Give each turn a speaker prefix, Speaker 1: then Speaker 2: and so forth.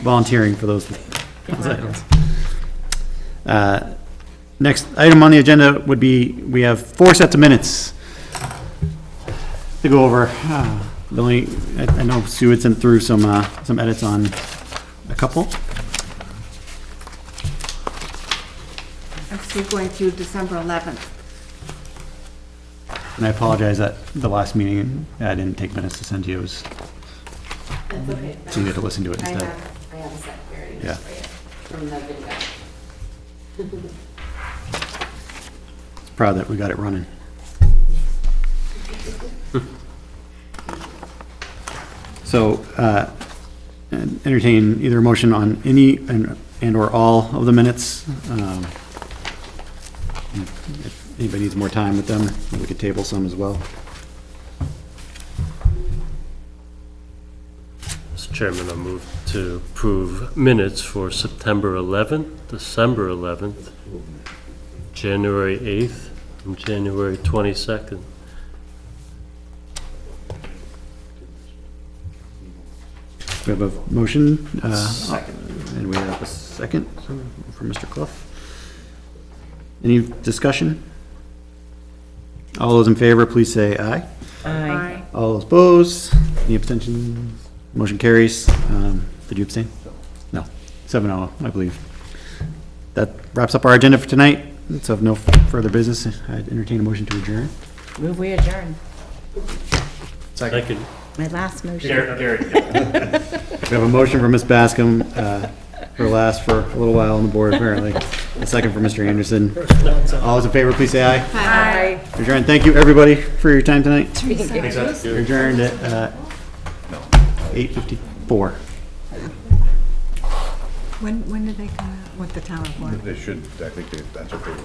Speaker 1: volunteering for those those items. Uh, Next item on the agenda would be, we have four sets of minutes to go over. Uh, The only, I I know Sue had sent through some, uh, some edits on a couple.
Speaker 2: I'm still going through December 11th.
Speaker 1: And I apologize that the last meeting, I didn't take minutes to send to you, it was,
Speaker 3: That's okay.
Speaker 1: so you had to listen to it
Speaker 3: I
Speaker 1: instead.
Speaker 3: have, I have a set here it
Speaker 1: Yeah.
Speaker 3: is for you from the video.
Speaker 1: Proud that we got it running. So, uh, entertain either a motion on any and- and/or all of the minutes. Um, If anybody needs more time with them, we could table some as well.
Speaker 4: Mr. Chairman, I move to approve minutes for September 11th, December 11th, January 8th, and January 22nd.
Speaker 1: We have a motion. Second. And we have a second from Mr. Clough. Any discussion? All those in favor, please say aye.
Speaker 2: Aye.
Speaker 1: All those opposed? Any abstentions? Motion carries. Um, Did you abstain? No. Seven oh, I believe. That wraps up our agenda for tonight. So if no further business, I entertain a motion to adjourn.
Speaker 5: Move we adjourn.
Speaker 4: I could
Speaker 5: My last motion.
Speaker 1: We have a motion for Ms. Bascom, uh, her last for a little while on the board apparently. A second for Mr. Anderson. All those in favor, please say aye.
Speaker 5: Aye.
Speaker 1: Adjourn. Thank you, everybody, for your time tonight. You're Adjourned at uh, 8:54.
Speaker 2: When, when did they come out with the town report?
Speaker 6: They should, I think they- that's what they